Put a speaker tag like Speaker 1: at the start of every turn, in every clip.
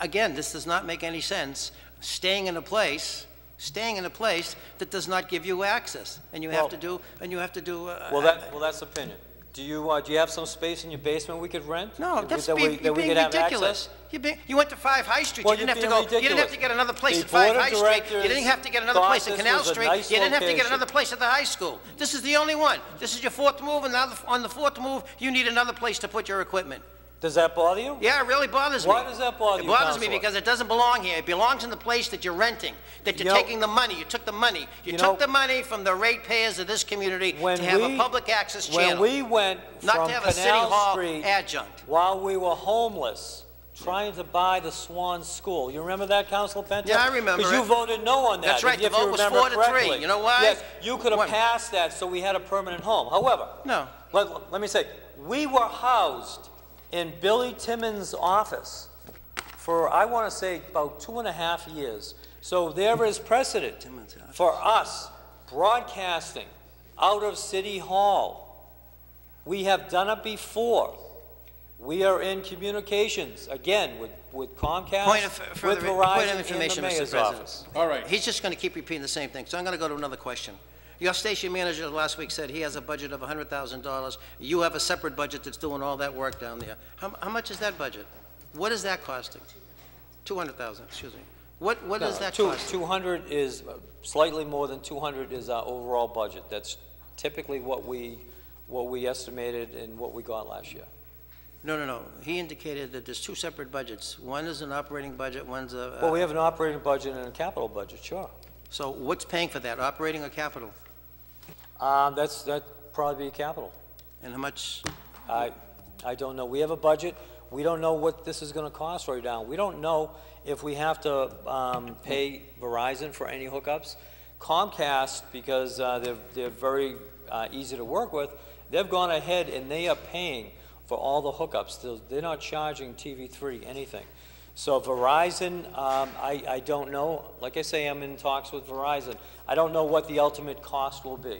Speaker 1: Again, this does not make any sense, staying in a place, staying in a place that does not give you access, and you have
Speaker 2: Well-
Speaker 1: to do, and you have to do... uh,
Speaker 2: Well, that, well, that's opinion. Do you, uh, do you have some space in your basement we could rent?
Speaker 1: No,
Speaker 2: That we-
Speaker 1: that's
Speaker 2: that we-
Speaker 1: being,
Speaker 2: that
Speaker 1: you're
Speaker 2: we
Speaker 1: being
Speaker 2: could have
Speaker 1: ridiculous. You're being, you went to Five High Street, you
Speaker 2: Well,
Speaker 1: didn't
Speaker 2: you're
Speaker 1: have to
Speaker 2: being
Speaker 1: go, you didn't have
Speaker 2: ridiculous.
Speaker 1: to get another place
Speaker 2: The
Speaker 1: at Five
Speaker 2: board of
Speaker 1: High Street, you
Speaker 2: directors
Speaker 1: didn't have to get another place at
Speaker 2: thought this
Speaker 1: Canal
Speaker 2: was a
Speaker 1: Street,
Speaker 2: nice
Speaker 1: you didn't have to get
Speaker 2: location.
Speaker 1: another place at the high school. This is the only one. This is your fourth move, and now the, on the fourth move, you need another place to put your equipment.
Speaker 2: access. Does that bother you?
Speaker 1: Yeah, it really bothers me.
Speaker 2: Why does that bother you,
Speaker 1: It bothers me
Speaker 2: Counselor?
Speaker 1: because it doesn't belong here. It belongs in the place that you're renting, that you're
Speaker 2: You know-
Speaker 1: taking the money. You took the money. You
Speaker 2: You
Speaker 1: took
Speaker 2: know-
Speaker 1: the money from the ratepayers of this community
Speaker 2: When
Speaker 1: to have a
Speaker 2: we-
Speaker 1: public access
Speaker 2: When
Speaker 1: channel.
Speaker 2: we went
Speaker 1: Not to
Speaker 2: from
Speaker 1: have a city
Speaker 2: Canal
Speaker 1: hall
Speaker 2: Street.
Speaker 1: adjunct.
Speaker 2: While we were homeless, trying to buy the Swan School. You remember that, Councilor Penta?
Speaker 1: Yeah, I remember
Speaker 2: Because you
Speaker 1: it.
Speaker 2: voted no on that.
Speaker 1: That's right, the
Speaker 2: if you
Speaker 1: vote was
Speaker 2: remember
Speaker 1: four to three.
Speaker 2: correctly.
Speaker 1: You know why?
Speaker 2: Yes, you could
Speaker 1: One.
Speaker 2: have passed that, so we had a permanent home. However.
Speaker 1: No.
Speaker 2: Let, let me say, we were housed in Billy Timmons' office for, I want to say, about two and a half years. So there is precedent for us broadcasting out of City Hall. We have done it before. We are in communications, again, with with
Speaker 1: Point of
Speaker 2: Comcast, with
Speaker 1: further- point of
Speaker 2: Verizon, and the
Speaker 1: information, Mr.
Speaker 2: mayor's
Speaker 1: President.
Speaker 2: office.
Speaker 3: All right.
Speaker 1: He's just going to keep repeating the same thing, so I'm going to go to another question. Your station manager last week said he has a budget of $100,000. You have a separate budget that's doing all that work down there. How, how much is that budget? What is that costing? 200,000, excuse me. What, what
Speaker 2: No,
Speaker 1: is that
Speaker 2: two-
Speaker 1: costing?
Speaker 2: 200 is, uh, slightly more than 200 is our overall budget. That's typically what we, what we estimated and what we got last year.
Speaker 1: No, no, no. He indicated that there's two separate budgets. One is an operating budget, one's a,
Speaker 2: Well,
Speaker 1: uh,
Speaker 2: we have an operating budget and a capital budget, sure.
Speaker 1: so what's paying for that, operating or capital? uh,
Speaker 2: Um, That's, that'd probably be capital.
Speaker 1: And how much,
Speaker 2: I, I don't know. We have a budget. We don't know what this is going to cost right now. We don't know if we have to um, pay Verizon for any hookups. Comcast, because uh, they're, they're very uh, easy to work with, they've gone ahead and they are paying for all the hookups. They're- They're not charging TV3 anything. So Verizon, um, I, I don't know. Like I say, I'm in talks with Verizon. I don't know what the ultimate cost will be.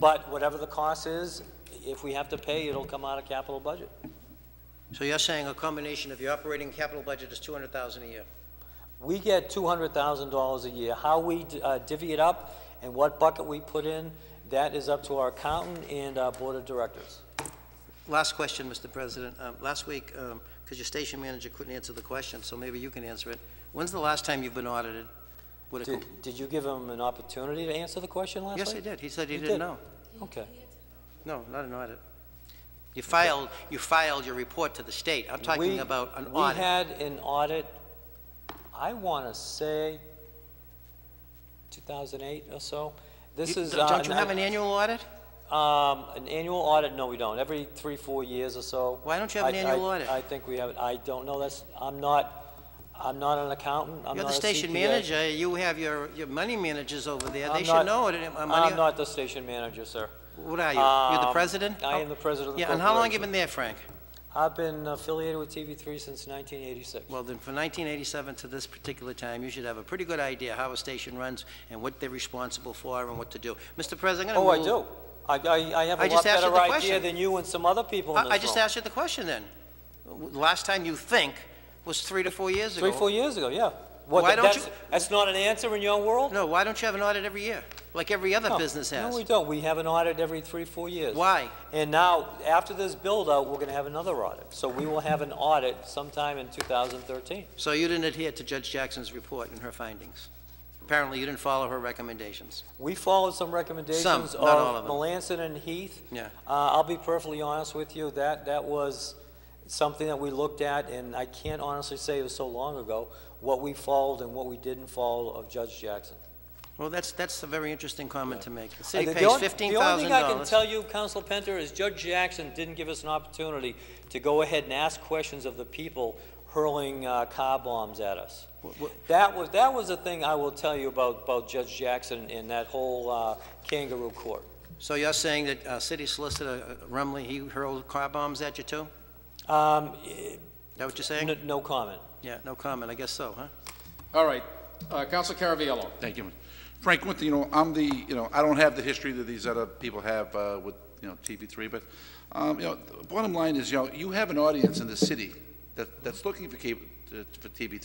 Speaker 2: But whatever the cost is, if we have to pay, it'll come out of capital budget.
Speaker 1: so you're saying a combination of your operating and capital budget is 200,000 a year?
Speaker 2: We get two hundred thousand dollars a year. How we uh, divvy it up and what bucket we put in, that is up to our accountant and our board of directors.
Speaker 1: Last question, Mr. President. Um, Last week, because your station manager couldn't answer the question, so maybe you can answer it. When's the last time you've been audited? Would it-
Speaker 2: Did, did you give him an opportunity to answer the question last
Speaker 1: Yes, I
Speaker 2: week?
Speaker 1: did. He said he
Speaker 2: You
Speaker 1: didn't
Speaker 2: did.
Speaker 1: know.
Speaker 2: Okay.
Speaker 1: No, not an audit. You filed, you filed your report to the state. I'm talking
Speaker 2: We-
Speaker 1: about an
Speaker 2: We
Speaker 1: audit.
Speaker 2: had an audit, I want to say, two thousand eight or so. This
Speaker 1: You-
Speaker 2: is. uh,
Speaker 1: Don't you have an annual audit?
Speaker 2: Um, an annual audit, no, we don't. Every three, four years or so.
Speaker 1: Why don't you have an
Speaker 2: I- I-
Speaker 1: annual audit?
Speaker 2: I think we have, it. I don't know, that's, I'm not, I'm not an accountant, I'm not a
Speaker 1: You're the station
Speaker 2: CPA.
Speaker 1: manager. You have your, your money managers over there. They
Speaker 2: I'm
Speaker 1: should
Speaker 2: not-
Speaker 1: know it. Uh, money-
Speaker 2: I'm not the station manager, sir.
Speaker 1: What are you? You're the
Speaker 2: Um,
Speaker 1: president?
Speaker 2: I am the president of the
Speaker 1: Yeah, and how long you
Speaker 2: corporation.
Speaker 1: been there, Frank?
Speaker 2: I've been affiliated with TV3 since 1986.
Speaker 1: Well, then, from 1987 to this particular time, you should have a pretty good idea how a station runs and what they're responsible for and what to do. Mr. President, I'm
Speaker 2: Oh,
Speaker 1: going
Speaker 2: I
Speaker 1: to
Speaker 2: do. I, I, I have
Speaker 1: I
Speaker 2: a
Speaker 1: just
Speaker 2: lot
Speaker 1: asked you
Speaker 2: better
Speaker 1: the
Speaker 2: idea
Speaker 1: question.
Speaker 2: than you and some other people in this
Speaker 1: I just
Speaker 2: room.
Speaker 1: asked you the question then. W- Last time you think was three to four years ago.
Speaker 2: Three, four years ago, yeah. What,
Speaker 1: Why
Speaker 2: that-
Speaker 1: don't
Speaker 2: that's-
Speaker 1: you-
Speaker 2: That's not an answer in your world?
Speaker 1: No, why don't you have an audit every year, like every other
Speaker 2: No.
Speaker 1: business
Speaker 2: Oh, No, we
Speaker 1: has?
Speaker 2: don't. We have an audit every three, four years.
Speaker 1: Why?
Speaker 2: And now, after this build-out, we're going to have another audit. So we will have an audit sometime in 2013.
Speaker 1: So you didn't adhere to Judge Jackson's report and her findings. Apparently, you didn't follow her recommendations.
Speaker 2: We followed some recommendations
Speaker 1: Some,
Speaker 2: of
Speaker 1: not all of them.
Speaker 2: Melanson and Heath.
Speaker 1: Yeah.
Speaker 2: Uh, I'll be perfectly honest with you, that, that was something that we looked at, and I can't honestly say it was so long ago, what we followed and what we didn't follow of Judge Jackson.
Speaker 1: Well, that's, that's a very interesting comment to make. The
Speaker 2: I
Speaker 1: city
Speaker 2: think the
Speaker 1: pays
Speaker 2: on-
Speaker 1: $15,000.
Speaker 2: The only thing I can tell you, Council Penter, is Judge Jackson didn't give us an opportunity to go ahead and ask questions of the people hurling uh, car bombs at us.
Speaker 1: W- w-
Speaker 2: That was, that was the thing I will tell you about, about Judge Jackson and that whole uh, kangaroo court.
Speaker 1: So you're saying that uh, city solicitor uh, Rumley, he hurled car bombs at you too?
Speaker 2: Um, eh,
Speaker 1: Is that what you're saying?
Speaker 2: n- No comment.
Speaker 1: Yeah, no comment, I guess so, huh?
Speaker 3: All right. Uh, Counselor Caraviallo.
Speaker 4: Thank you. Frank, one thing, you know, I'm the, you know, I don't have the history that these other people have uh, with, you know, TV3, but, um, you know, the bottom line is, you know, you have an audience in the city that, that's looking for cable, uh, for TV